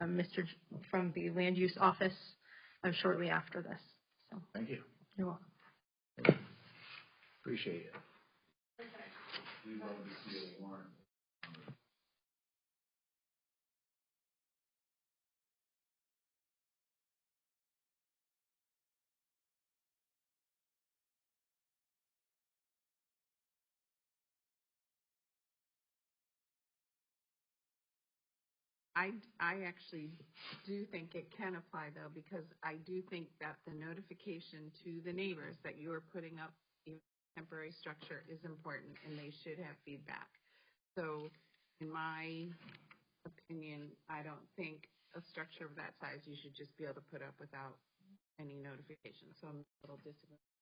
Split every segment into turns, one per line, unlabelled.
um, Mr. J- from the Land Use Office um, shortly after this. So
Thank you.
you're welcome.
Appreciate it.
I, I actually do think it can apply though, because I do think that the notification to the neighbors that you are putting up a temporary structure is important and they should have feedback. So in my opinion, I don't think a structure of that size you should just be able to put up without any notification. So I'm a little disagreeing.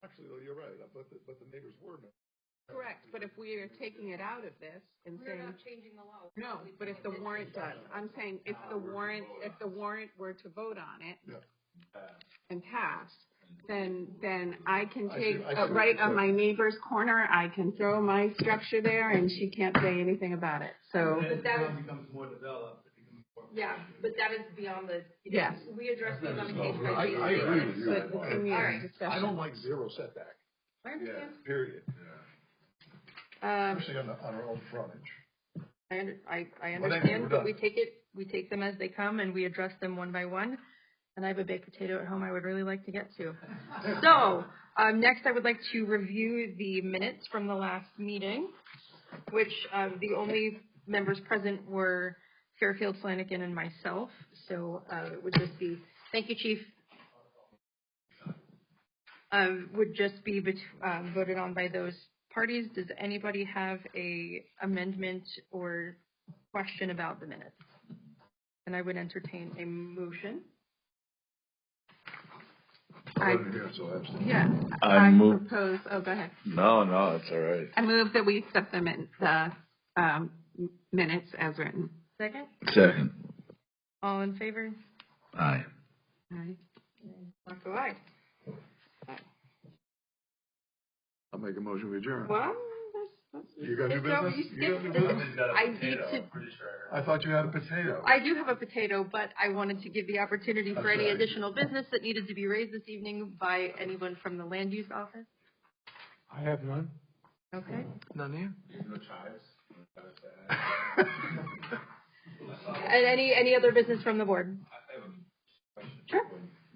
Actually, though, you're right, but the, but the neighbors were. no-
Correct, but if we are taking it out of this and
We're
saying
not changing the law.
No, but if the warrant does, I'm saying if the warrant, if the warrant were to vote on it
Yeah.
and pass, then, then I can
I
take,
see- I see
uh,
what
right
you're
on
saying.
my neighbor's corner, I can throw my structure there and she can't say anything about it, so.
But that is,
becomes more developed.
yeah, but that is beyond the.
Yes.
We address these on a
No,
case by
I,
case.
I agree with you.
But we can,
All
yeah,
right.
I
discussion.
don't like zero setback,
I understand.
period,
Um,
especially on, the- on our own frontage.
I, under- I, I
Well, then we're
understand, but
done.
we take it, we take them as they come and we address them one by one. And I have a baked potato at home I would really like to get to. So, um, next I would like to review the minutes from the last meeting, which, um, the only members present were Fairfield, Flanagan, and myself. So, uh, it would just be, thank you, chief. Um, would just be bet- um, voted on by those parties. Does anybody have a amendment or question about the minutes? And I would entertain a motion.
I
I-
wasn't here, so absolutely.
Yeah,
I
I
move,
propose, oh, go ahead.
no, no, it's all right.
I move that we accept the min, the, um, minutes as written.
Second,
Second.
all in favor?
Aye.
Aye.
Marco, aye.
I'll make a motion to adjourn.
Well, that's, that's.
You got new
It's so-
business?
you
You got new
skipped
business?
I need to-
I thought you had a potato.
I do have a potato, but I wanted to give the opportunity for any
Okay.
additional business that needed to be raised this evening by anyone from the land use office.
I have none.
Okay.
None here?
No chives. No chives to add.
Oh.
And any, any other business from the board?
I I have a question.
Sure.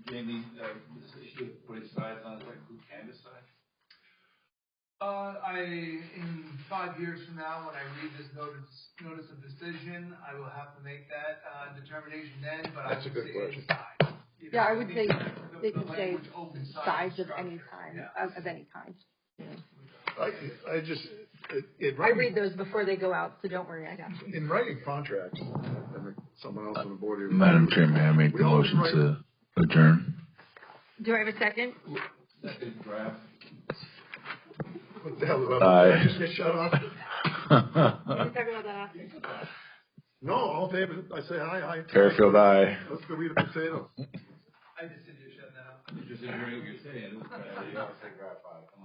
Jamie, uh, this issue of putting signs on, like who can decide?
Uh, I, in five years from now, when I read this notice, notice of decision, I will have to make that, uh, determination then, but I
That's a
would
good
say
question.
size. You
Yeah,
know,
I would say
the-
they
the
could say
language open
size of
structure.
any kind,
Yeah.
of, of any kind.
I, I just, it, it.
I read those before they go out, so don't worry, I got you.
In writing contracts, I think someone else on the board here.
Madam Chair, may I make the motion to adjourn?
Do I have a second?
Second draft
What the hell? did
Aye.
I Just get shut off?
Can we talk about that after?
No, all in favor, I say aye, aye.
Fairfield, aye.
Let's go eat a potato.
I just said you shut that up.
You're just hearing what you're saying. It's kind of- you always say draft five.